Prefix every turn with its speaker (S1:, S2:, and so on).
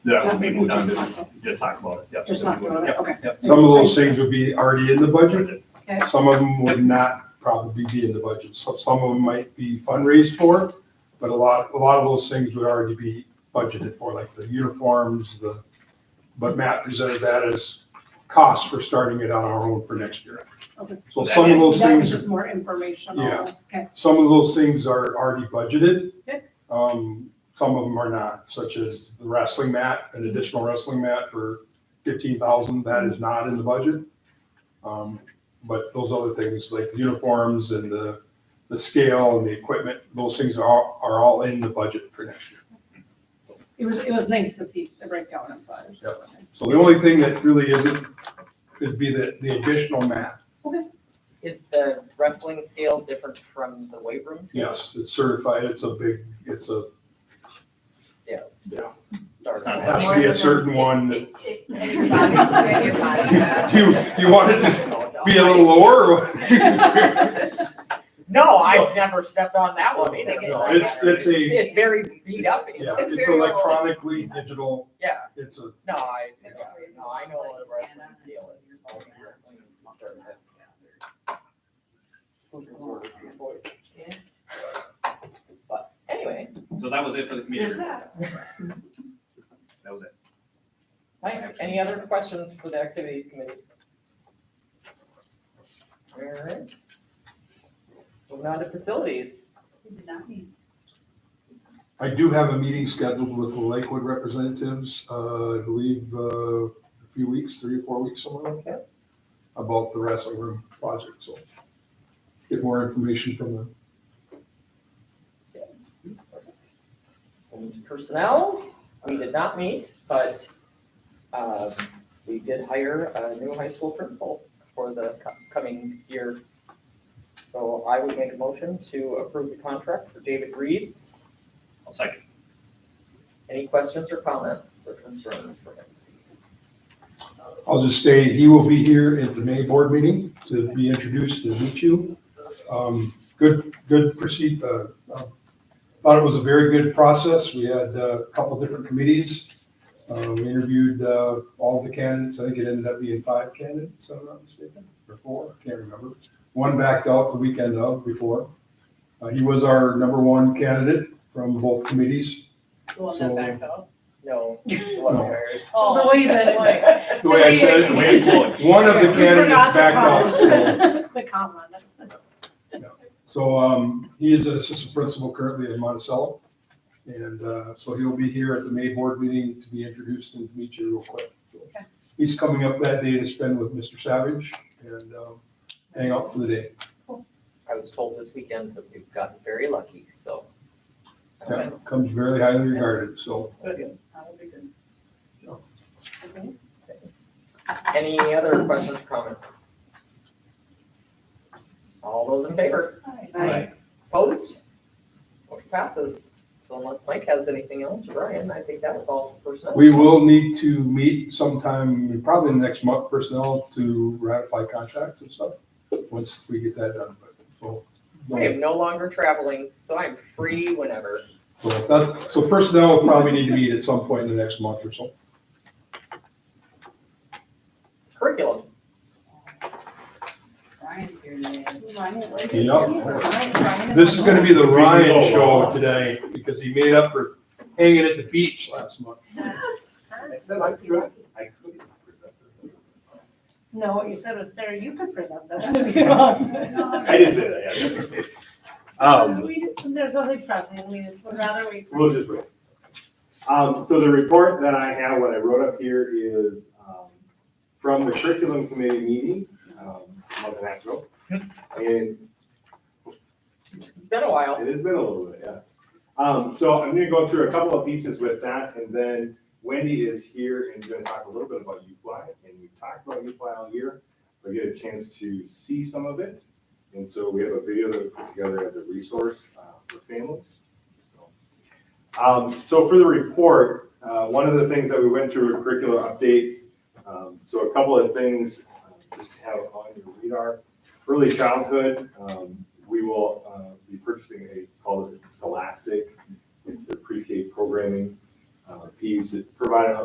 S1: Yeah, I mean, we're done, just, just talk about it, yep.
S2: Just talk about it,
S1: Yep,
S2: okay.
S1: yep.
S3: Some of those things would be already in the budget,
S2: Okay.
S3: some of them would not probably be in the budget, some, some of them might be fundraised for, but a lot, a lot of those things would already be budgeted for, like the uniforms, the, but Matt presented that as costs for starting it on our own for next year.
S2: Okay.
S3: So some of those
S2: That was
S3: things,
S2: just more informational.
S3: Yeah.
S2: Okay,
S3: some of those things are already budgeted.
S2: Okay.
S3: Um, some of them are not, such as the wrestling mat, an additional wrestling mat for fifteen thousand, that is not in the budget. Um, but those other things like the uniforms and the, the scale and the equipment, those things are, all- are all in the budget for next year.
S2: it was, it was nice to see the breakdown of that.
S3: So the only thing that really isn't, could be the, the additional mat.
S4: Is the wrestling scale different from the weight room?
S3: Yes, it's certified, it's a big, it's a,
S4: Yeah. it's dark.
S1: It's not
S3: it has to be a certain one that
S5: And your body, and your body.
S3: You, you want it to be a little lower? or-
S4: No, I've never stepped on that one either.
S3: No, It's, it's a,
S4: It's very beat up.
S3: yeah,
S5: It's
S3: it's
S5: very low.
S3: electronically digital,
S4: Yeah,
S3: it's a,
S4: no, I,
S5: It's a reason
S4: no, I know
S5: why
S4: what
S5: it's
S4: a wrestling
S5: stand up.
S4: scale is. All the wrestling is concerned with. Who's the word of your voice? But anyway,
S1: So that was it for the community.
S5: There's that.
S1: That was it.
S4: Mike, any other questions for the activities committee? All right. Moving on to facilities.
S3: I do have a meeting scheduled with the Lakewood representatives, uh, I believe, uh, a few weeks, three or four weeks, somewhere like that, about the wrestling room project, so get more information from them.
S4: And Personnel, we did not meet, but um, we did hire a new high school principal for the co- coming year. So I would make a motion to approve the contract for David Reeds.
S1: I'll second.
S4: Any questions or comments or concerns for him?
S3: I'll just say he will be here at the May board meeting to be introduced and meet you. Um, Good, good proceed, uh, uh, thought it was a very good process. We had uh, a couple different committees. Uh, We interviewed uh, all the candidates. I think it ended up being five candidates, if I'm not mistaken, or four, I can't remember. One backed out the weekend of before. Uh, He was our number one candidate from both committees.
S5: Well,
S3: So-
S5: not back out.
S4: No. what
S3: No.
S4: hired.
S2: The way that, like.
S3: The way I said it,
S1: The way it flowed.
S3: one of the
S2: We forgot the
S3: candidates backed
S2: comma. The
S3: out. so-
S2: comma, that's.
S3: So um, he is an assistant principal currently in Monticello. And uh, so he'll be here at the May board meeting to be introduced and meet you real quick. He's coming up that day to spend with Mr. Savage and um, hang out for the day.
S4: I was told this weekend that we've gotten very lucky, so.
S3: Yeah, Comes very highly regarded, so.
S4: Um, Any other questions, or comments? All those in favor?
S1: Right.
S4: Opposed? Motion passes. So unless Mike has anything else, Ryan, I think that was all for personnel.
S3: We will need to meet sometime, probably in the next month, personnel to ratify contracts and stuff, once we get that done. But, So
S4: I am no longer traveling, so I'm free whenever.
S3: so that- so personnel will probably need to meet at some point in the next month or so.
S4: Curriculum,
S5: Brian's here today.
S3: Yep. This is gonna be the Ryan show today, because he made up for hanging at the beach last month.
S1: I said I could, I could.
S2: No, what you said was, Sarah, you could present this if you want.
S1: I didn't say that, yeah. Um,
S2: We didn't, there's nothing pressing, we just would rather wait. for-
S6: We'll just wait. Um, so the report that I have, what I wrote up here is, um, from the curriculum committee meeting, um, a month and a half ago. And
S4: it's been a while.
S6: it has been a little bit, yeah. Um, so I'm gonna go through a couple of pieces with that, and then Wendy is here and gonna talk a little bit about UFly, and we've talked about UFly all year. I get a chance to see some of it, and so we have a video that we put together as a resource, uh, for families. So, Um, so for the report, uh, one of the things that we went through were curricular updates, um, so a couple of things, uh, just to have on your radar early childhood, um, we will, uh, be purchasing a, it's called a Scholastic. It's the pre-K programming, um, uh, piece. It provided